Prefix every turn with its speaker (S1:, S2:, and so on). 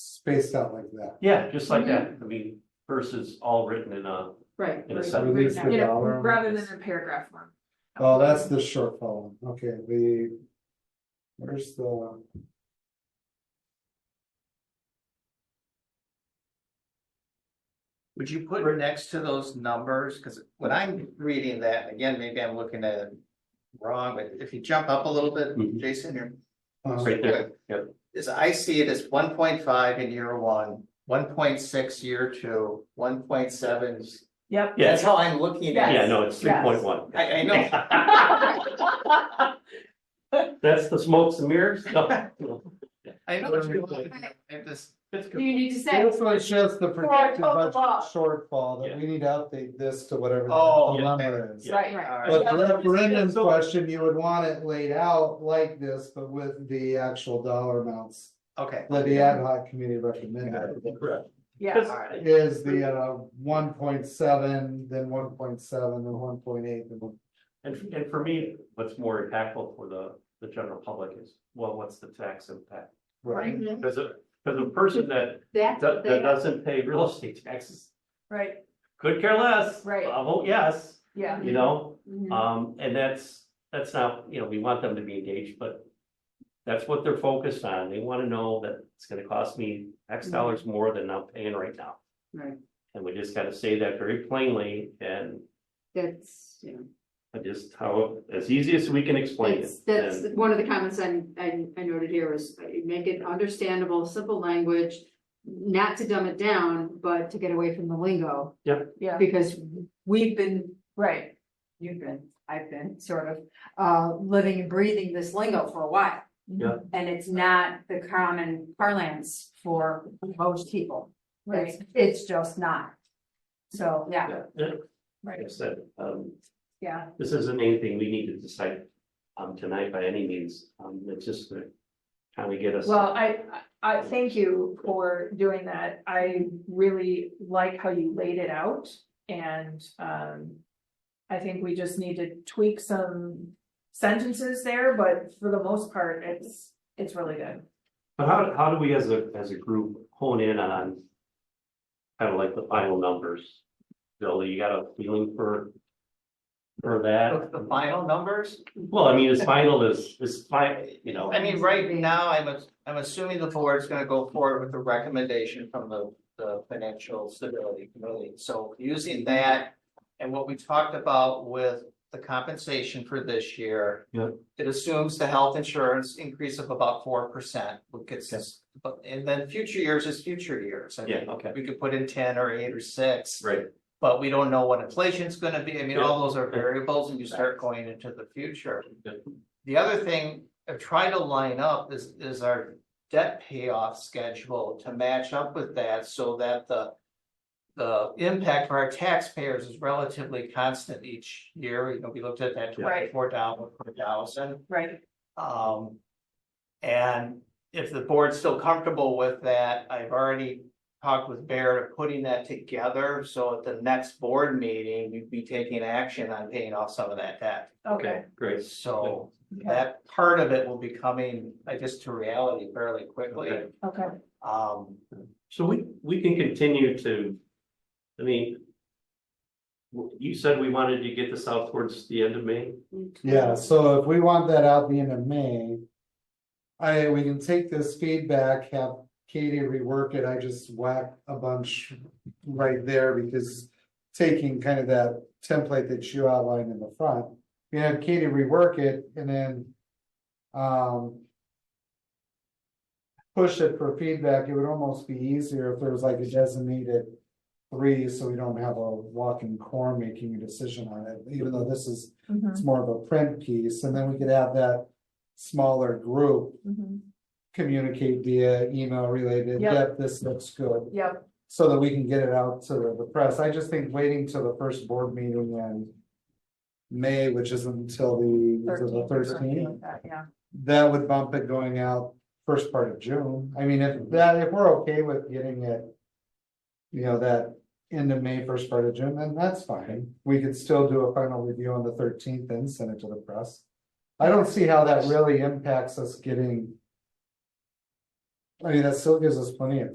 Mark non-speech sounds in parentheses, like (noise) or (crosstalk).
S1: spaced out like that.
S2: Yeah, just like that, I mean, versus all written in uh, a,
S3: right.
S2: In a
S3: right,
S2: sentence.
S3: right
S1: Release
S3: now.
S1: the
S3: You know,
S1: dollar amount.
S3: Rather than in paragraph form.
S1: Oh,
S4: (laughs)
S1: that's the short column, okay, the. Where's the? um,
S5: Would you put next to those numbers, because when I'm reading that, and again, maybe I'm looking at it wrong, but if you jump up a little bit,
S2: Mhm.
S5: Jason, you're.
S1: uh,
S2: Right there, yep.
S5: Is I see it as one point five in year one, one point six year two, one point seven.
S4: Yep.
S5: That's
S2: yeah,
S5: how I'm looking at.
S2: yeah,
S5: it.
S2: no, it's three point one.
S5: I, I know,
S2: (laughs) That's the smokes and mirrors, no,
S5: I know what you're looking at, I'm just.
S3: Do you need to say? oh,
S1: Hopefully it's just the projected
S4: total
S1: budget
S4: loss.
S1: shortfall that we need to update this to whatever. the
S5: Oh,
S1: actual
S5: yeah.
S1: number is.
S2: Yeah.
S4: Right,
S3: Right.
S4: right.
S5: all right.
S1: But the referendum
S2: So-
S1: question, you would want it laid out like this, but with the actual dollar amounts.
S5: Okay,
S1: That the ad hoc committee recommended
S2: correct.
S4: Yeah,
S5: alright,
S1: is the uh one point seven, then one point seven, then one point eight, then one.
S2: And, and for me, what's more impactful for the, the general public is, well, what's the tax impact?
S1: Right,
S3: Mm-hmm.
S2: Because a, because a person that,
S3: That's
S2: that
S3: what they,
S2: doesn't pay real estate taxes
S4: right,
S2: could care less.
S4: Right.
S2: I'll vote yes,
S4: yeah,
S2: you know,
S3: Mhm.
S4: Mm-hmm.
S2: um, and that's, that's not, you know, we want them to be engaged, but. That's what they're focused on, they wanna know that it's gonna cost me X
S4: Mm-hmm.
S2: dollars more than I'm paying right now.
S3: Right.
S2: And we just gotta say that very plainly, and
S3: that's, you know,
S2: just how, as easy as we can explain it.
S3: that's, that's
S2: And-
S3: one of the comments I, I, I noted here was uh, make it understandable, simple language. Not to dumb it down, but to get away from the lingo,
S4: yeah,
S3: because we've been
S4: right,
S3: you've been, I've been sort of, uh, living and breathing this lingo for a while.
S2: Yeah.
S3: And it's not the common parlance for most people.
S4: right,
S3: It's, it's just not. So, yeah.
S2: Yeah, yeah, like I
S4: right,
S2: said, um,
S4: yeah,
S2: this isn't anything we need to decide, um, tonight by any means, um, it's just to kind of get us.
S4: well, I, I, I thank you for doing that, I really like how you laid it out, and, um. I think we just need to tweak some sentences there, but for the most part, it's, it's really good,
S2: But how, how do we as a, as a group hone in on kind of like the final numbers? Bill, you got a feeling for, for that?
S5: (laughs) Look, the final numbers?
S2: Well, I mean, as final as, as fine, you know,
S5: I mean, right now, I'm, ass- I'm assuming the board's gonna go forward with the recommendation from the, the financial stability committee, so using that. And what we talked about with the compensation for this year.
S2: Yeah.
S5: It assumes the health insurance increase of about four percent, would gets us, but, and then future years is future years. I
S2: yeah,
S5: mean,
S2: okay,
S5: We could put in ten or eight or six.
S2: right,
S5: But we don't know what inflation's gonna be, I mean, all those are variables and you start going into the future.
S2: Yeah.
S5: The other thing, I try to line up is, is our debt payoff schedule to match up with that so that the. The impact for our taxpayers is relatively constant each year, you know, we looked at that
S2: Yeah.
S5: twenty-four down per thousand.
S4: right,
S5: Um, and if the board's still comfortable with that, I've already talked with Bear to putting that together. So at the next board meeting, you'd be taking action on paying off some of that debt.
S4: okay.
S2: okay, great.
S5: So
S4: Okay.
S5: that part of it will be coming, I guess, to reality fairly quickly.
S2: Okay.
S4: Okay,
S5: Um,
S2: So we, we can continue to, I mean. w- You said we wanted to get this out towards the end of May,
S1: yeah, so if we want that out the end of May. I, we can take this feedback, have Katie rework it, I just whack a bunch right there because. Taking kind of that template that you outlined in the front, we have Katie rework it and then. Um. Push it for feedback, it would almost be easier if there was like a designated three, so we don't have a walking core making a decision on it, even though this is.
S4: mhm,
S1: it's more of a print piece, and then we could have that smaller group
S4: mhm.
S1: communicate via email related,
S4: Yep.
S1: that this looks good,
S4: Yep,
S1: so that we can get it out to the press. I just think waiting till the first board meeting in May, which is until the, is it the
S4: thirteen, something
S1: thirteenth,
S4: like that, yeah,
S1: that would bump it going out first part of June. I mean, if that, if we're okay with getting it, you know, that end of May, first part of June, then that's fine. We could still do a final review on the thirteenth and send it to the press. I don't see how that really impacts us getting. I mean, that still gives us plenty of